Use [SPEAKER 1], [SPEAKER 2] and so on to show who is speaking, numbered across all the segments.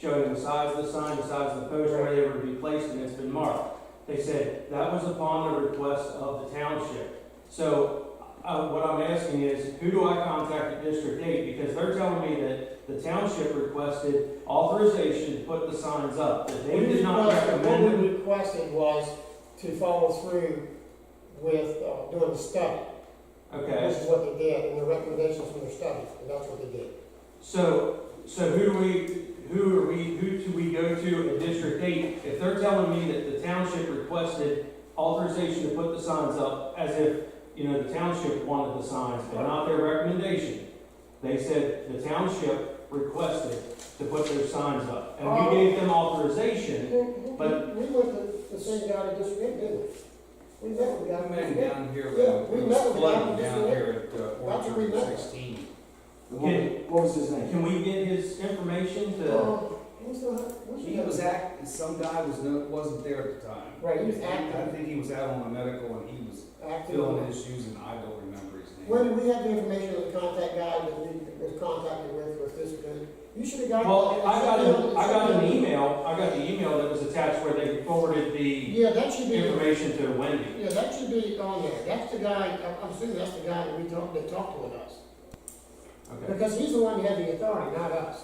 [SPEAKER 1] showing the size of the sign, the size of the post, where they were to be placed, and it's been marked. They said that was upon the request of the township. So, uh, what I'm asking is, who do I contact at District Eight? Because they're telling me that the township requested authorization to put the signs up, that they
[SPEAKER 2] We
[SPEAKER 1] did not
[SPEAKER 2] requested-
[SPEAKER 1] recommend
[SPEAKER 2] What
[SPEAKER 1] it.
[SPEAKER 2] we requested was to follow through with, uh, doing the study,
[SPEAKER 1] Okay,
[SPEAKER 2] which is what they did, and the recommendations from their study, and that's what they did.
[SPEAKER 1] so, so who do we, who are we, who do we go to at District Eight? If they're telling me that the township requested authorization to put the signs up, as if, you know, the township wanted the signs, but not their recommendation. They said the township requested to put their signs up, and we gave them authorization. But-
[SPEAKER 2] We went to the same guy that just did, didn't we? We met with the guy.
[SPEAKER 3] That man down here,
[SPEAKER 2] Yeah,
[SPEAKER 3] uh,
[SPEAKER 2] we
[SPEAKER 3] was
[SPEAKER 2] met with
[SPEAKER 3] flooding
[SPEAKER 2] him.
[SPEAKER 3] down here at uh,
[SPEAKER 2] That's what we
[SPEAKER 3] Orchard
[SPEAKER 2] met.
[SPEAKER 3] sixteen.
[SPEAKER 4] The one- What was his name?
[SPEAKER 1] Can we get his information to,
[SPEAKER 2] Uh, who's the- who's the-
[SPEAKER 3] He was acting, some guy was, no- wasn't there at the time.
[SPEAKER 2] Right, he was
[SPEAKER 3] I
[SPEAKER 2] acting,
[SPEAKER 3] think he was out on the medical and he was filling
[SPEAKER 2] acting.
[SPEAKER 3] his shoes and I don't remember his name.
[SPEAKER 2] When we had the information of the contact guy that we was contacted with, was this good? You should have got.
[SPEAKER 1] well, I got, a- I got an email, I got the email that was attached where they forwarded the
[SPEAKER 2] Yeah, that should be.
[SPEAKER 1] information to Wendy.
[SPEAKER 2] Yeah, that should be on there, that's the guy, I'm- I'm assuming that's the guy that we talked, that talked with us.
[SPEAKER 1] Okay,
[SPEAKER 2] Because he's the one who had the authority, not us.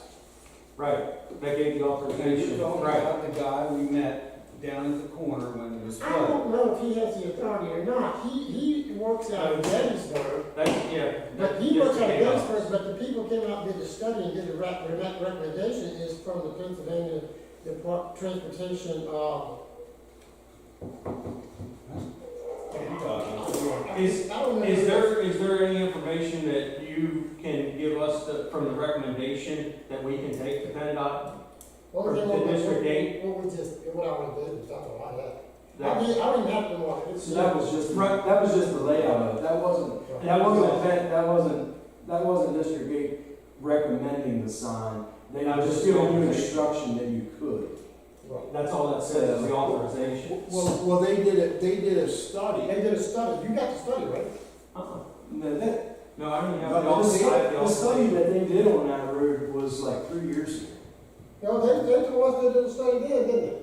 [SPEAKER 1] right, they gave the
[SPEAKER 3] And you're
[SPEAKER 1] authorization,
[SPEAKER 3] talking
[SPEAKER 1] right,
[SPEAKER 3] about the guy we met down at the corner when it was
[SPEAKER 2] I
[SPEAKER 3] flooded.
[SPEAKER 2] don't know if he has the authority or not, he, he works out of Gettysburg,
[SPEAKER 1] that's, yeah.
[SPEAKER 2] but
[SPEAKER 1] that
[SPEAKER 2] he
[SPEAKER 1] just
[SPEAKER 2] works out of
[SPEAKER 1] came up.
[SPEAKER 2] Gettysburg, but the people came out and did the study and did the rec, the rec- recommendation is from the Pennsylvania Depart, Transportation, uh.
[SPEAKER 1] Is-
[SPEAKER 2] I don't know.
[SPEAKER 1] Is there, is there any information that you can give us the- from the recommendation that we can take to PennDOT?
[SPEAKER 2] What we did,
[SPEAKER 1] the
[SPEAKER 2] what we-
[SPEAKER 1] district date?
[SPEAKER 2] What we just, what I would do, that's all I had. I
[SPEAKER 1] That-
[SPEAKER 2] did, I didn't have to walk. It's-
[SPEAKER 4] So that was just,
[SPEAKER 1] Right.
[SPEAKER 4] that was just the layout of it, that wasn't, that wasn't, a vet- that wasn't, that wasn't District Eight recommending the sign. They were just giving you instruction that you could.
[SPEAKER 2] Right.
[SPEAKER 1] That's all that says, is the authorization.
[SPEAKER 5] Well, well, they did it, they did a study.
[SPEAKER 2] They did a study, you got the study, right?
[SPEAKER 1] Uh-uh.
[SPEAKER 4] No, that,
[SPEAKER 1] No, I don't have the
[SPEAKER 4] the
[SPEAKER 1] author- I have
[SPEAKER 4] study,
[SPEAKER 1] the
[SPEAKER 4] the study
[SPEAKER 1] authorization.
[SPEAKER 4] that they did on that road was like three years ago.
[SPEAKER 2] No, they, they told us they did a study then, didn't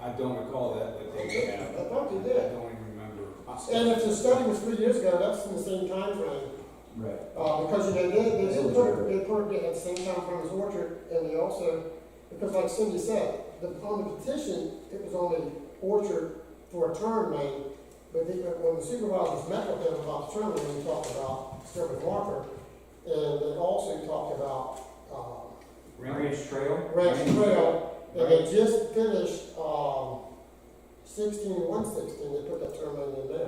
[SPEAKER 3] I don't recall that, but they did. have it.
[SPEAKER 2] I thought they did.
[SPEAKER 3] I don't even remember.
[SPEAKER 2] they? And if the study was three years ago, that's in the same timeframe,
[SPEAKER 4] Right.
[SPEAKER 2] uh, because they did, they did put, they put it at the same timeframe as Orchard, and they also, because like Cindy said, the, on the petition, it was only Orchard for a term name, but they, when the supervisors met with them about the term name, we talked about Sherman Walker, and they also talked about, um,
[SPEAKER 3] Remember?
[SPEAKER 1] Ranch Trail?
[SPEAKER 2] Ranch Trail, and they just finished, um, sixteen, one sixteen, they put that term in there.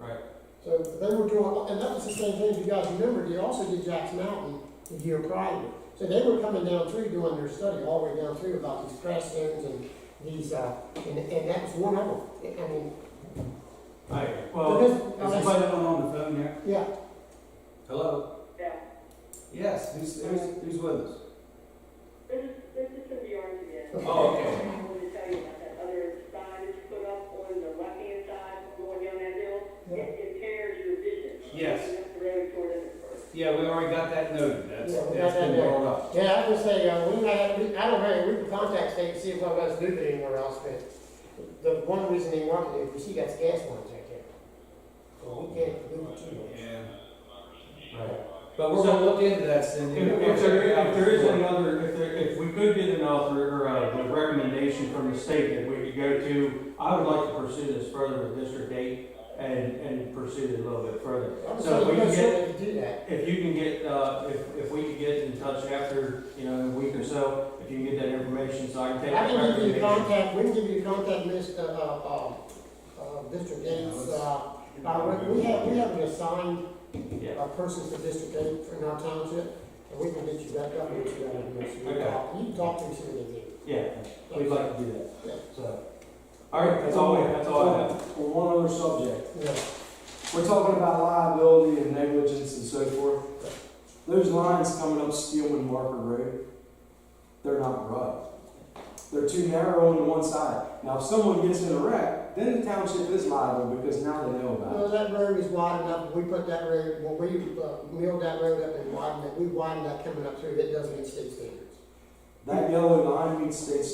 [SPEAKER 1] Right.
[SPEAKER 2] So they were doing, and that was the same thing, if you guys remember, they also did Jack's Mountain the year prior. So they were coming down through doing their study, all the way down through about these crash zones and these, uh, and, and that was one of them. I mean,
[SPEAKER 1] Right, well,
[SPEAKER 3] Is
[SPEAKER 2] because,
[SPEAKER 3] anybody on the phone there?
[SPEAKER 2] yeah,
[SPEAKER 3] Hello?
[SPEAKER 6] Yeah,
[SPEAKER 3] Yes, who's, who's, who's with us?
[SPEAKER 6] this is, this is from the argument.
[SPEAKER 3] Oh, okay.
[SPEAKER 6] I wanted to tell you about that other sign that's put up on the left-hand side going down that hill.
[SPEAKER 2] yeah,
[SPEAKER 6] It impairs your vision.
[SPEAKER 3] Yes.
[SPEAKER 6] Going up the road toward it first.
[SPEAKER 3] Yeah, we already got that noted, that's,
[SPEAKER 2] Yeah, we got
[SPEAKER 3] that's
[SPEAKER 2] that
[SPEAKER 3] been
[SPEAKER 2] noted.
[SPEAKER 3] brought up.
[SPEAKER 2] yeah, I was saying, uh, we might have, we, I don't know, we can contact state and see if one of us do it anywhere else, but the one reason they wanted it, because he got gas lines right there. Well, we can't do it too much.
[SPEAKER 3] Yeah,
[SPEAKER 1] right.
[SPEAKER 3] but we're gonna look into that,
[SPEAKER 1] If,
[SPEAKER 3] Cindy.
[SPEAKER 1] if there, if there is another, if there, if we could get an author, or uh, a recommendation from the state that we could go to, I would like to pursue this further with District Eight and, and pursue it a little bit further.
[SPEAKER 2] I'm
[SPEAKER 1] So we
[SPEAKER 2] sorry,
[SPEAKER 1] can
[SPEAKER 2] I'm
[SPEAKER 1] get-
[SPEAKER 2] sure we could do that.
[SPEAKER 1] If you can get, uh, if, if we could get in touch after, you know, a week or so, if you can get that information, so I can
[SPEAKER 2] I
[SPEAKER 1] take that
[SPEAKER 2] can give you
[SPEAKER 1] recommendation.
[SPEAKER 2] the contact, we can give you the contact list, uh, uh, uh, uh, District Eight's, uh, uh, we- we have, we have an assigned,
[SPEAKER 1] Yeah,
[SPEAKER 2] uh, person for District Eight in our township, and we can get you that, up and get you that information. You can
[SPEAKER 1] Okay.
[SPEAKER 2] talk- You can talk to them, see what they do.
[SPEAKER 1] yeah, we'd like to do that,
[SPEAKER 2] Yeah.
[SPEAKER 1] so. All right, that's all, I- that's all I have.
[SPEAKER 4] Well, one other subject.
[SPEAKER 2] Yeah.
[SPEAKER 4] We're talking about liability and negligence and so forth. Those lines coming up Steelman Marker Road, they're not right. They're too narrow on one side. Now, if someone gets in a wreck, then the township is liable because now they know about
[SPEAKER 2] Well, that road is wide enough, we put that road, when we, uh, milled that road up and widened it, we widened that coming up through, it doesn't meet state standards.
[SPEAKER 4] it. That yellow line meets state